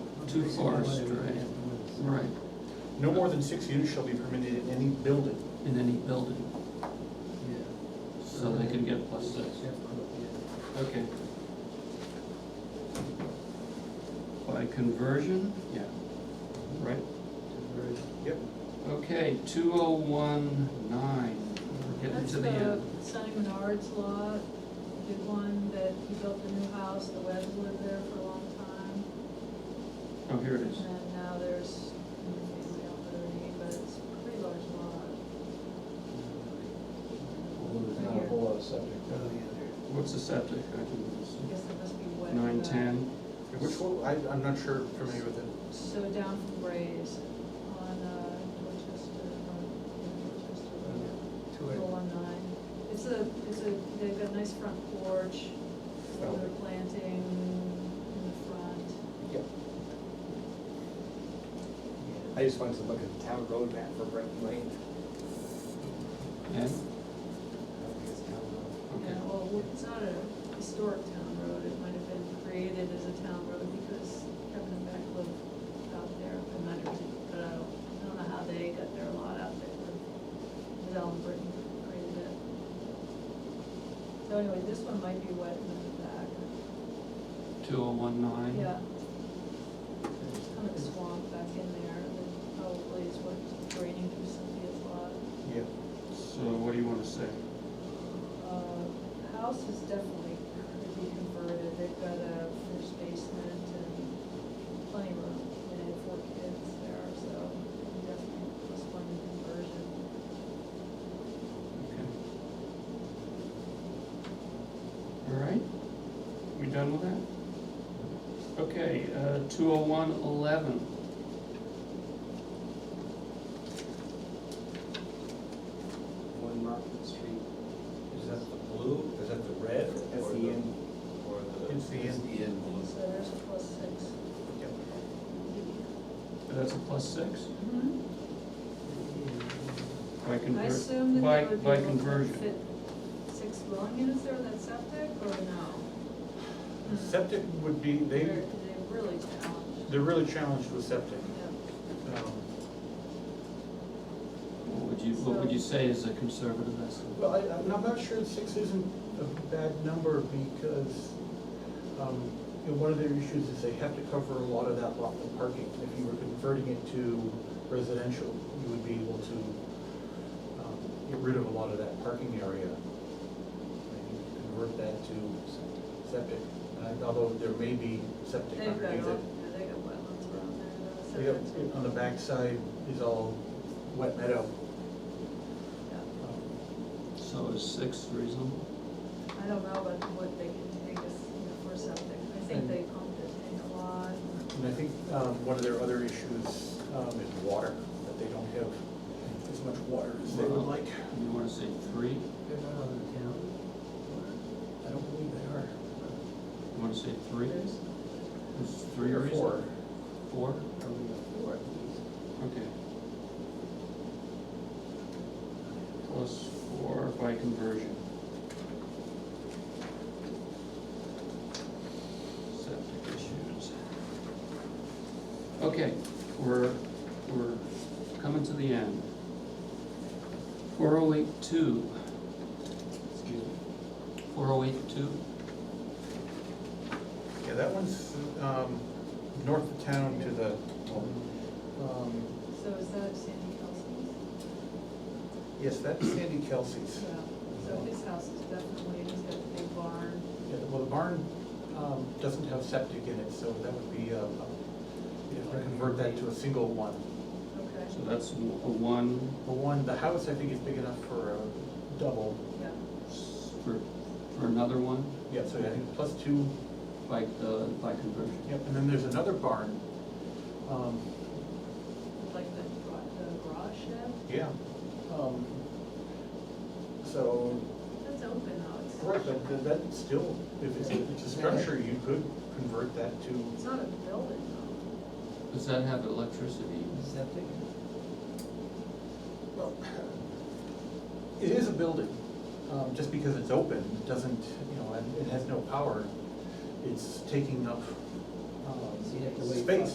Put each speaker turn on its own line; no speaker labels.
too far astray. Right,
No more than six units shall be permitted in any building.
in any building, so they can get plus six. Okay. By conversion? Yeah. Right,
Yep.
okay, two oh one nine, we're getting
That's
to the uh,
the
end.
Sonny Menard's lot, the big one that he built the new house, the Webbs lived there for a long time.
Oh, here it is.
And then now there's, family out there, but it's a pretty large lot.
Although there's not a whole lot of subject there.
What's the septic? I can
I guess
see.
it must be wet.
Nine
but-
ten,
Which one, I, I'm not sure, familiar with it.
So down from Ray's on uh, Dorchester, on Dorchester Road.
To it.
Little one nine. It's a, it's a, they've got a nice front porch,
Oh.
they're planting in the front.
Yep. I just wanted to look at the town road map for Brighton Lane. I
and,
don't think it's town road.
okay.
Yeah, well, it's not a historic town road, it might have been created as a town road because Kevin and Beck lived out there, and might have, but I don't, I don't know how they got their lot out there. But Ellen Britton created it. So anyway, this one might be wet in the back,
Two oh one nine?
yeah. There's kind of a swamp back in there, that probably is what's draining through Cynthia's lot.
Yeah.
So what do you wanna say?
Uh, House is definitely could be converted, they've got a finished basement and plenty of room, and they have four kids there, so definitely plus one conversion.
Okay. All right, we done with that? Okay, uh, two oh one eleven.
One Market Street.
Is that the blue, is that the red? or
That's the end.
Or the? E
It's the end.
The end blue.
So there's a plus six.
Mm-hmm. Yep.
That's a plus six by
Mm-hmm. I
conver,
assume that
by-
they would be
by
able to
conversion.
fit six dwelling units there in that septic, or no? Hmm.
Septic would be,
They're,
they,
they're really challenged,
they're really challenged with septic.
yeah.
Um,
what would you, what would you say is a conservative estimate?
Well, I, I'm not- I'm not sure six isn't a bad number because, um, you know, one of their issues is they have to cover a lot of that lot with parking. If you were converting it to residential, you would be able to, um, get rid of a lot of that parking area. And you could Convert that to septic, And although there may be septic
They've got,
underneath it.
all- they got wetlands around there,
Yep,
though, so
on the backside is all wet meadow.
yeah.
Um,
So is six reasonable?
I don't know about what they can take us you know, for something. I think they pumped it in a lot.
And I think um, one of their other issues um, is water, that they don't have as much water as they would like.
You wanna say three?
I don't believe they are.
You wanna say three?
There's
Is three
Or
reasonable? Four?
Four.
four.
Okay. Plus four by conversion. Septic issues. Okay, we're, we're coming to the end. Four oh eight two. Excuse me. Four oh eight two,
Yeah, that one's um, north of town to the, um,
So is that Sandy Kelsey's?
yes, that's Sandy Kelsey's.
Yeah. So his house is definitely, he's got the big barn.
Yeah, Well, the barn um, doesn't have septic in it, so that would be, uh, you know, convert that to a single one.
Okay,
so that's a one
The one, the house, I think, is big enough for a double.
yeah.
s- for, for another one
Yeah, so I think plus two
by the, by conversion.
Yep, and then there's another barn. Um,
Like the gra- the garage shed,
yeah. Um, So,
that's open now. It's-
right, but th- that still, if it's, if it's a structure, you could convert that to,
It's not a building though.
Does that have electricity?
Septic?
well, it is a building. Um, just because it's open, doesn't, you know, and it has no power, it's taking up,
So you have to
um,
wait
space.